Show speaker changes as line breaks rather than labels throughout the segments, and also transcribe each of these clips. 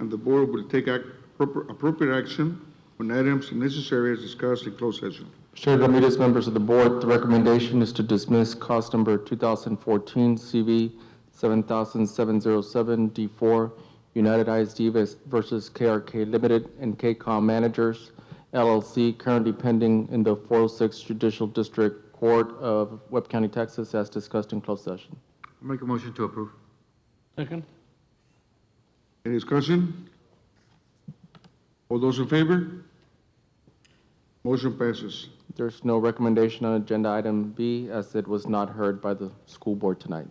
the board will take ac- proper- appropriate action on items necessary as discussed in closed session.
Chair Ramirez, members of the board, the recommendation is to dismiss cause number 2014 CV 7707 D4, United ISD vis- versus KRK Limited and KCOM Managers LLC, currently pending in the 406 Judicial District Court of Webb County, Texas, as discussed in closed session.
Make a motion to approve.
Second?
Any discussion? All those in favor? Motion passes.
There's no recommendation on agenda item B, as it was not heard by the school board tonight.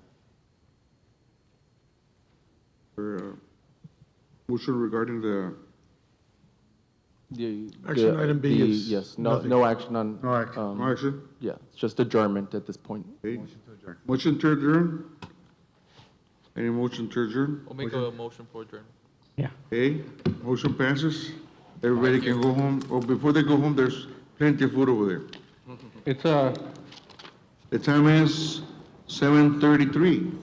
Or, uh, Motion regarding the,
The-
Action
the-
item B
the-
is
Yes, no,
nothing.
no action on.
No action.
um,
no action?
Yeah, it's just adjournment at this point.
Okay. Motion to adjourn? Any motion to adjourn?
We'll make a motion for adjournment.
Yeah.
Okay, motion passes. Everybody can go home. Oh, before they go home, there's plenty of food over there.
It's, uh,
The time is seven thirty-three.